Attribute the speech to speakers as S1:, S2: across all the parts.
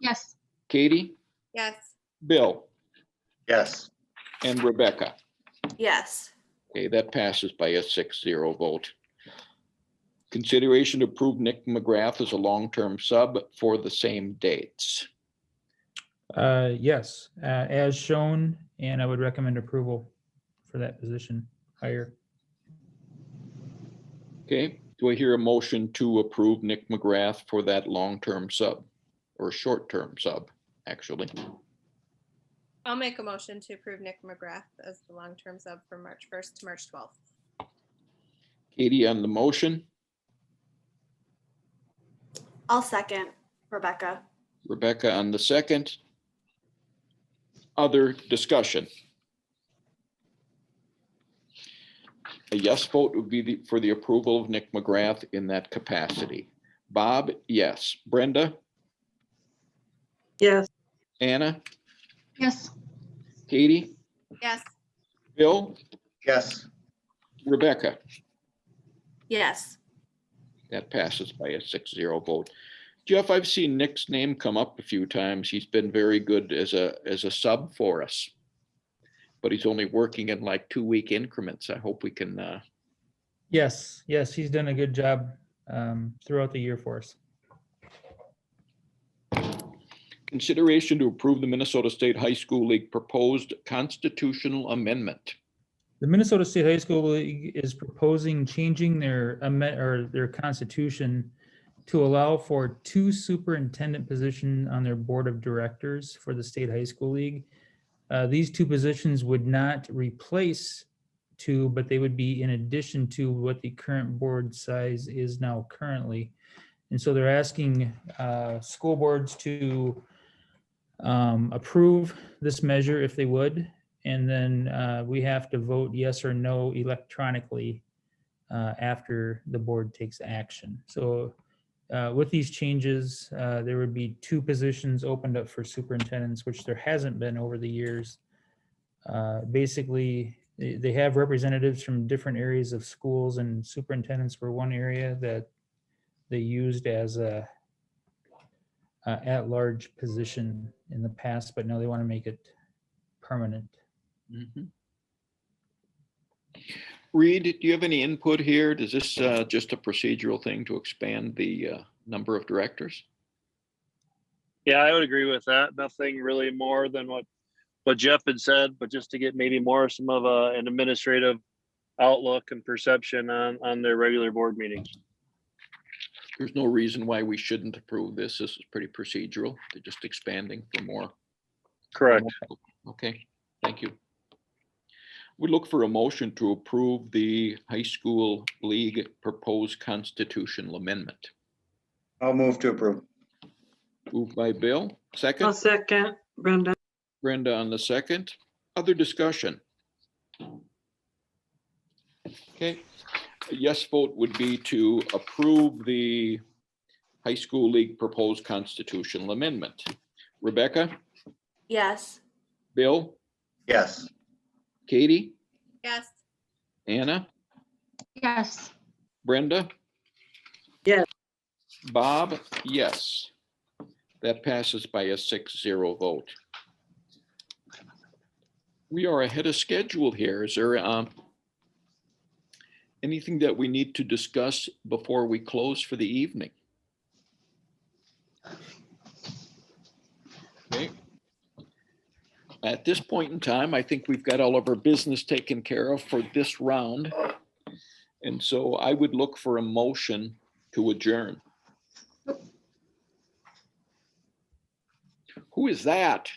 S1: Yes.
S2: Katie,
S3: Yes.
S2: Bill,
S4: Yes.
S2: and Rebecca.
S3: Yes.
S2: Okay, that passes by a six zero vote. Consideration to approve Nick McGrath as a long-term sub for the same dates.
S5: Uh, yes, uh, as shown, and I would recommend approval for that position higher.
S2: Okay, do I hear a motion to approve Nick McGrath for that long-term sub or short-term sub, actually?
S3: I'll make a motion to approve Nick McGrath as the long-term sub from March 1st to March 12th.
S2: Katie on the motion,
S6: I'll second Rebecca.
S2: Rebecca on the second. Other discussion? A yes vote would be the- for the approval of Nick McGrath in that capacity. Bob, yes. Brenda,
S7: yes,
S2: Anna,
S1: Yes.
S2: Katie,
S3: Yes.
S2: Bill,
S4: Yes.
S2: Rebecca.
S3: Yes.
S2: That passes by a six zero vote. Jeff, I've seen Nick's name come up a few times. He's been very good as a, as a sub for us. But he's only working in like two week increments. I hope we can, uh,
S5: Yes, yes, he's done a good job um, throughout the year for us.
S2: consideration to approve the Minnesota State High School League proposed constitutional amendment.
S5: The Minnesota State High School League is proposing changing their amendment or their constitution to allow for two superintendent position on their board of directors for the state high school league. Uh, These two positions would not replace two, but they would be in addition to what the current board size is now currently. And so they're asking uh, school boards to um, approve this measure if they would. And then uh, we have to vote yes or no electronically uh, after the board takes action. So uh, with these changes, uh, there would be two positions opened up for superintendents, which there hasn't been over the years. Uh, Basically, they they have representatives from different areas of schools and superintendents were one area that they used as a uh, at-large position in the past, but now they want to make it permanent.
S2: Reed, do you have any input here? Does this, uh, just a procedural thing to expand the, uh, number of directors?
S8: Yeah, I would agree with that. Nothing really more than what, what Jeff had said, but just to get maybe more some of a, an administrative outlook and perception on, on their regular board meetings.
S2: There's no reason why we shouldn't approve this. This is pretty procedural. They're just expanding for more
S8: Correct.
S2: Okay, thank you. We look for a motion to approve the high school league proposed constitutional amendment.
S4: I'll move to approve.
S2: Moved by Bill,
S7: I'll
S2: second,
S7: second Brenda,
S2: Brenda on the second. Other discussion? Okay, a yes vote would be to approve the high school league proposed constitutional amendment. Rebecca,
S6: Yes.
S2: Bill,
S4: Yes.
S2: Katie,
S3: Yes.
S2: Anna?
S1: Yes.
S2: Brenda?
S7: Yes.
S2: Bob, yes. That passes by a six zero vote. We are ahead of schedule here. Is there um anything that we need to discuss before we close for the evening? Okay. At this point in time, I think we've got all of our business taken care of for this round. And so I would look for a motion to adjourn. Who is that?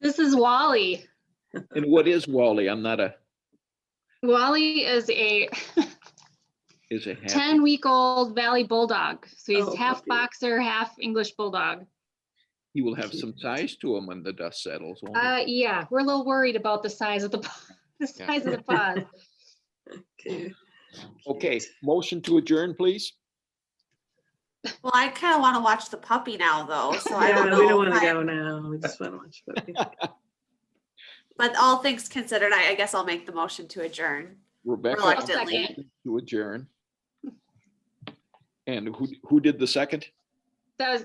S1: This is Wally.
S2: And what is Wally? I'm not a,
S1: Wally is a
S2: is a half.
S1: 10 week old Valley Bulldog. So he's
S7: Oh,
S1: half
S7: puppy.
S1: boxer, half English Bulldog.
S2: He will have some size to him when the dust settles. won't he?
S1: Uh, yeah, we're a little worried about the size of the, paw- the
S2: Yeah.
S1: size of the pod.
S7: Okay.
S2: Okay, motion to adjourn, please.
S6: Well, I kind of want to watch the puppy now, though. So I
S7: Yeah,
S6: don't
S7: we don't
S6: know.
S7: want
S6: if
S7: to
S6: I-
S7: go now. We just want to watch. the movie.
S6: But all things considered, I, I guess I'll make the motion to adjourn.
S2: Rebecca.
S1: I'll
S6: Reluctantly.
S1: second.
S2: motion To adjourn. And who, who did the second?
S1: that was,